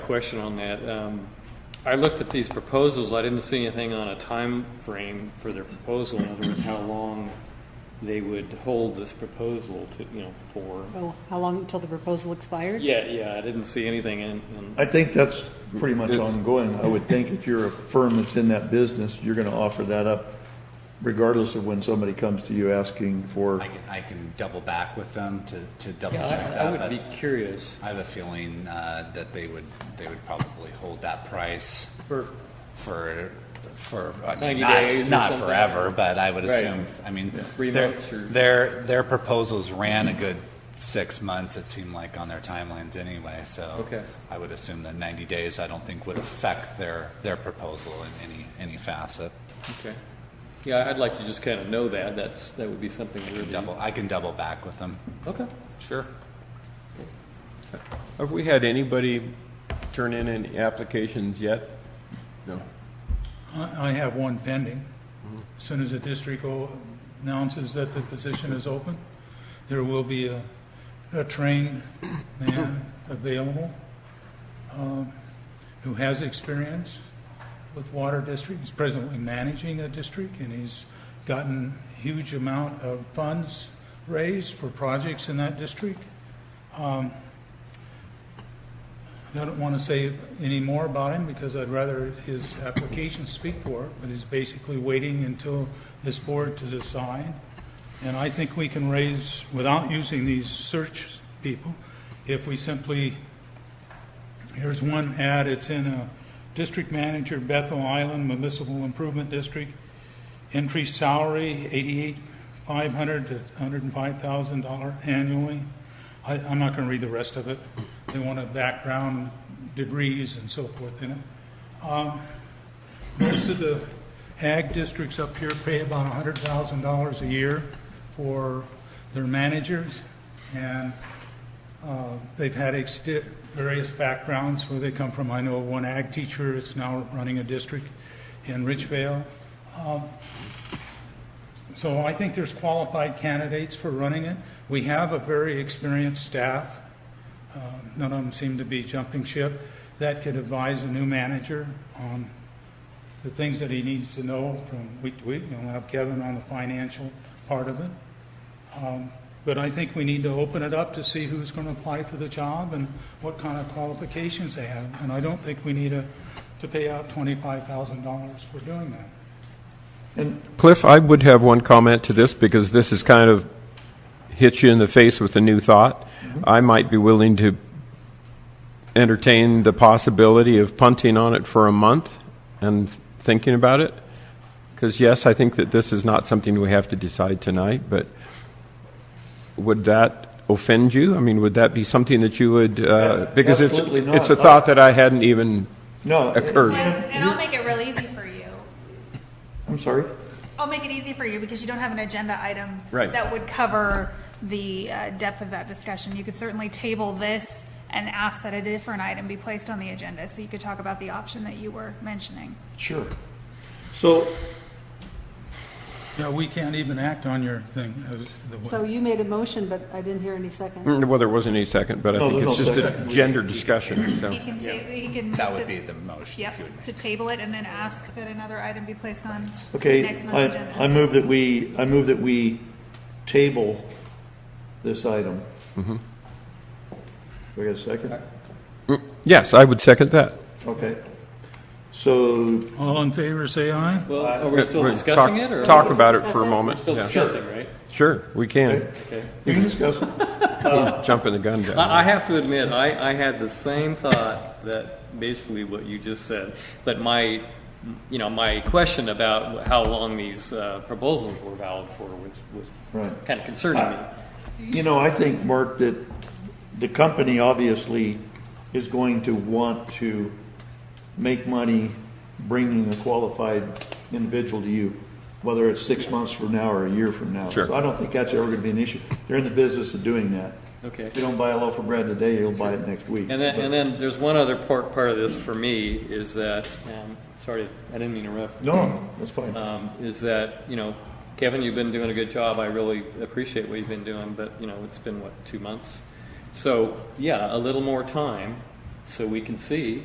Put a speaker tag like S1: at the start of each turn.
S1: question on that. Um, I looked at these proposals, I didn't see anything on a time frame for their proposal, in other words, how long they would hold this proposal to, you know, for.
S2: Oh, how long until the proposal expired?
S1: Yeah, yeah, I didn't see anything in, in-
S3: I think that's pretty much ongoing. I would think if you're a firm that's in that business, you're gonna offer that up regardless of when somebody comes to you asking for,
S4: I can, I can double back with them to, to double
S1: yeah, I-
S4: check
S1: I
S4: that,
S1: would
S4: but
S1: be curious
S4: I have a feeling, uh, that they would, they would probably hold that price
S1: for,
S4: for, for, I
S1: 90
S4: mean,
S1: days
S4: not,
S1: or
S4: not
S1: something.
S4: forever, but I would
S1: Right.
S4: assume, I mean,
S1: Three
S4: their,
S1: months or-
S4: their, their proposals ran a good six months, it seemed like, on their timelines anyway, so.
S1: Okay.
S4: I would assume that ninety days, I don't think would affect their, their proposal in any, any facet.
S1: okay. Yeah, I'd like to just kind of know that, that's, that would be something really.
S4: Double, I can double back with them.
S1: Okay.
S4: Sure.
S5: Have we had anybody turn in any applications yet? No.
S6: I I have one pending. As Soon as the district o- announces that the position is open, there will be a, a trained man available um, who has experience with water district. He's presently managing a district, and he's gotten huge amount of funds raised for projects in that district. I don't want to say any more about him because I'd rather his application speak for it, but he's basically waiting until this board to decide. And I think we can raise, without using these search people, if we simply, here's one ad, it's in a district manager, Bethel Island Municipal Improvement District, increased salary, eighty-eight, five hundred to hundred and five thousand dollar annually. I, I'm not gonna read the rest of it. They want a background, degrees and so forth in it. Um, Most of the ag districts up here pay about hundred thousand dollars a year for their managers, and uh, they've had exti- various backgrounds where they come from. I know one ag teacher is now running a district in Richvale. Um, So I think there's qualified candidates for running it. We have a very experienced staff um, none of them seem to be jumping ship, that could advise a new manager on the things that he needs to know from week to week. We'll have Kevin on the financial part of it. Um, But I think we need to open it up to see who's going to apply for the job and what kind of qualifications they have. And I don't think we need to, to pay out $25,000 for doing that.
S3: and
S5: Cliff, I would have one comment to this because this is kind of hits you in the face with a new thought.
S3: Mm-hmm.
S5: I might be willing to entertain the possibility of punting on it for a month and thinking about it. Because yes, I think that this is not something we have to decide tonight, but would that offend you? I mean, would that be something that you would, uh, because it's,
S3: Absolutely not.
S5: it's a thought that I hadn't even
S3: no.
S5: occurred.
S7: And, and I'll make it real easy for you.
S3: I'm sorry?
S7: I'll make it easy for you because you don't have an agenda item
S5: Right.
S7: that would cover the uh, depth of that discussion. You could certainly table this and ask that a different item be placed on the agenda, so you could talk about the option that you were mentioning.
S3: Sure. So,
S6: Yeah, we can't even act on your thing. uh, the way-
S2: So you made a motion, but I didn't hear any second.
S5: Mm, Well, there wasn't any second, but I
S3: No,
S5: think it's
S3: there's no
S5: just a gender discussion, so.
S7: He can ta- he can.
S4: That
S7: make
S4: would be the motion. you would
S7: Yep,
S4: make.
S7: to table it and then ask that another item be placed on
S3: okay,
S7: next
S3: I,
S7: month's agenda.
S3: I move that we, I move that we table this item. Do I get a second?
S5: Yes, I would second that.
S3: Okay. So,
S6: All in favor, say aye.
S1: Well, are we still
S5: Talk-
S1: discussing it, or?
S5: Talk about it for a
S1: We're
S5: moment.
S1: still
S5: yeah.
S1: discussing, right?
S5: Sure, we can.
S1: Okay.
S3: you can discuss it.
S5: Jump in the gun. down
S1: I, I have to admit, I, I had the same thought that basically what you just said, but my, you know, my question about how long these uh, proposals were valid for was, was
S3: Right.
S1: kind of concerning me.
S3: You know, I think, Mark, that the company obviously is going to want to make money bringing a qualified individual to you, whether it's six months from now or a year from now.
S5: Sure.
S3: So I don't think that's ever going to be an issue. They're in the business of doing that.
S1: Okay.
S3: If you don't buy a loaf of bread today, you'll buy it next week.
S1: And then,
S3: But-
S1: and then there's one other part, part of this for me is that, um, sorry, I didn't mean to interrupt,
S3: No, that's fine.
S1: um, is that, you know, Kevin, you've been doing a good job. I really appreciate what you've been doing, but, you know, it's been, what, two months? So, yeah, a little more time so we can see